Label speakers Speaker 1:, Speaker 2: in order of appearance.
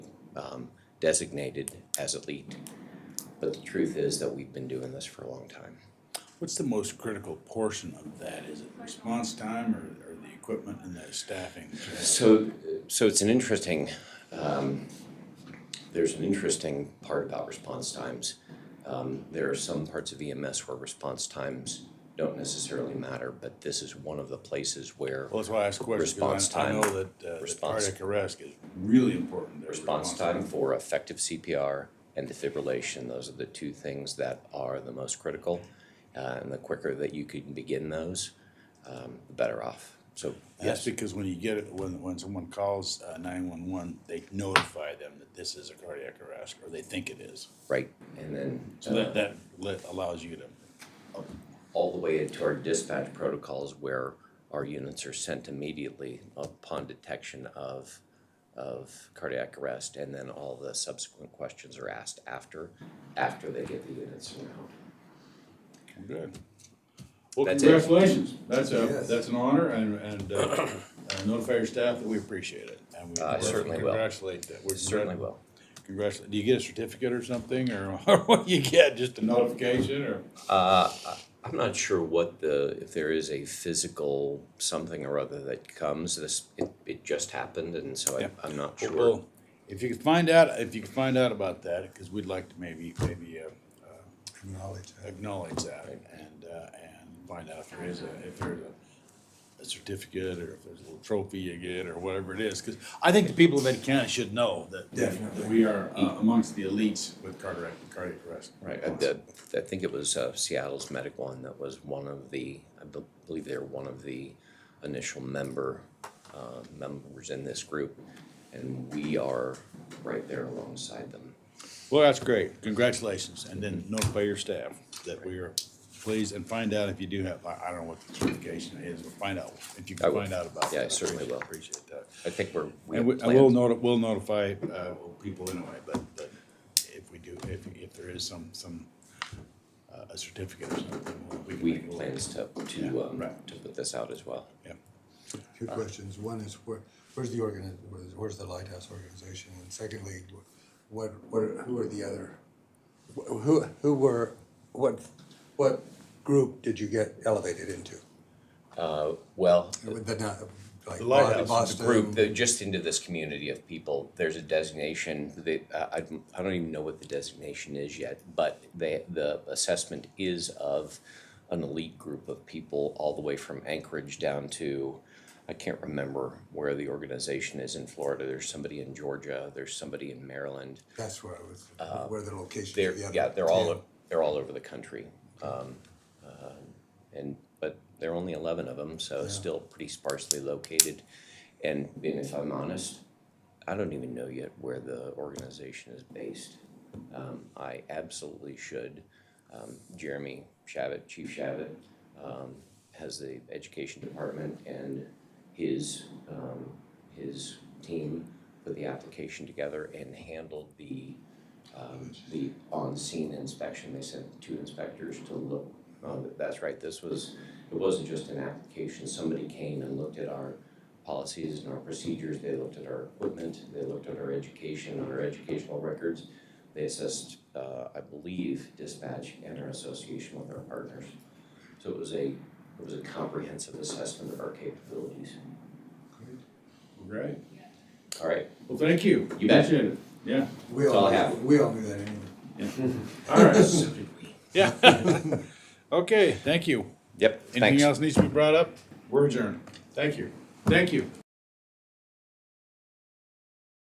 Speaker 1: um, designated as elite. But the truth is that we've been doing this for a long time.
Speaker 2: What's the most critical portion of that? Is it response time or, or the equipment and the staffing?
Speaker 1: So, so it's an interesting, um, there's an interesting part about response times. Um, there are some parts of EMS where response times don't necessarily matter, but this is one of the places where
Speaker 2: Well, that's why I asked questions,
Speaker 1: Response
Speaker 2: because I, I
Speaker 1: time.
Speaker 2: know that, uh, that
Speaker 1: Response-
Speaker 2: cardiac arrest is really important. their
Speaker 1: response time for effective CPR and defibrillation, those are the two things that are the most critical. Uh, and the quicker that you can begin those, um, the better off. So, yes,
Speaker 2: That's because when you get it, when, when someone calls, uh, nine-one-one, they notify them that this is a cardiac arrest, or they think it is.
Speaker 1: right, and then. uh,
Speaker 2: So that, that let- allows you to,
Speaker 1: all the way into our dispatch protocols where our units are sent immediately upon detection of, of cardiac arrest, and then all the subsequent questions are asked after, after they get the units around.
Speaker 2: good. Well,
Speaker 1: That's it.
Speaker 2: congratulations, that's a,
Speaker 3: Yes.
Speaker 2: that's an honor, and, and, uh, uh, notify your staff that we appreciate it. and we
Speaker 1: I certainly will.
Speaker 2: Congratulate, uh, that- we
Speaker 1: Certainly will.
Speaker 2: Congratulations. Do you get a certificate or something, or what you get, just a notification, or?
Speaker 1: Uh, I- I'm not sure what the, if there is a physical something or other that comes, this, it, it just happened, and so I,
Speaker 2: Yeah.
Speaker 1: I'm not sure.
Speaker 2: Well, if you could find out, if you could find out about that, because we'd like to maybe, maybe uh, uh,
Speaker 3: Acknowledge that.
Speaker 2: acknowledge that and, uh, and find out if there is a, if there's a, a certificate or if there's a little trophy you get or whatever it is. Because I think the people of Ed County should know that.
Speaker 3: Definitely.
Speaker 2: That we are uh, amongst the elites with cardiac, cardiac arrest.
Speaker 1: Right, I, I- I think it was uh, Seattle's Medic One that was one of the, I bel- believe they're one of the initial member, uh, members in this group. And we are right there alongside them.
Speaker 2: Well, that's great. Congratulations. And then notify your staff that we are pleased and find out if you do have, I I don't know what the certification is, but find out if you
Speaker 1: I
Speaker 2: can
Speaker 1: will.
Speaker 2: find out about that.
Speaker 1: Yeah, I certainly will.
Speaker 2: Appreciate that.
Speaker 1: I think we're, we
Speaker 2: And
Speaker 1: have
Speaker 2: we- I will
Speaker 1: plans.
Speaker 2: noti- we'll notify, uh, people anyway, but, but if we do, if, if there is some, some, uh, a certificate or something, we'll- we can.
Speaker 1: We
Speaker 2: make a
Speaker 1: have
Speaker 2: little-
Speaker 1: plans to,
Speaker 2: Yeah,
Speaker 1: to, um,
Speaker 2: right.
Speaker 1: to put this out as well.
Speaker 2: Yeah.
Speaker 3: Two questions. One is where, where's the organi- where's, where's the Lighthouse organization? And secondly, wh- what, what, are- who are the other? wh- Who, who were, what, what group did you get elevated into?
Speaker 1: Uh, well,
Speaker 3: The, not, like
Speaker 2: The Lighthouse is the
Speaker 3: Boston?
Speaker 1: group, the- just into this community of people, there's a designation, they, I, I don't- I don't even know what the designation is yet, but they, the assessment is of an elite group of people, all the way from Anchorage down to, I can't remember where the organization is in Florida, there's somebody in Georgia, there's somebody in Maryland.
Speaker 3: That's where I was, where the locations
Speaker 1: They're,
Speaker 3: of the other.
Speaker 1: yeah, they're all,
Speaker 3: ten.
Speaker 1: o- they're all over the country. Um, uh, And, but there are only eleven of them, so it's still pretty sparsely located. And and if I'm honest, I don't even know yet where the organization is based. Um, I absolutely should. Um, Jeremy Shabbat, Chief Shabbat, um, has the education department and his, um, his team put the application together and handled the, um, the on-scene inspection. They sent two inspectors to look. Oh, that's right, this was, it wasn't just an application. Somebody came and looked at our policies and our procedures, they looked at our equipment, they looked at our education, our educational records. They assessed, uh, I believe, dispatch and our association with our partners. So it was a, it was a comprehensive assessment of our capabilities.
Speaker 2: Right.
Speaker 1: All right,
Speaker 2: Well, thank you.
Speaker 1: You bet.
Speaker 2: Appreciate it. Yeah.
Speaker 3: We
Speaker 1: all
Speaker 3: all,
Speaker 1: I have.
Speaker 3: we all knew that anyway.
Speaker 2: All right. Yeah. Okay, thank you.
Speaker 1: yep,
Speaker 2: Anything else needs to be brought up? We're adjourned. Thank you. Thank you.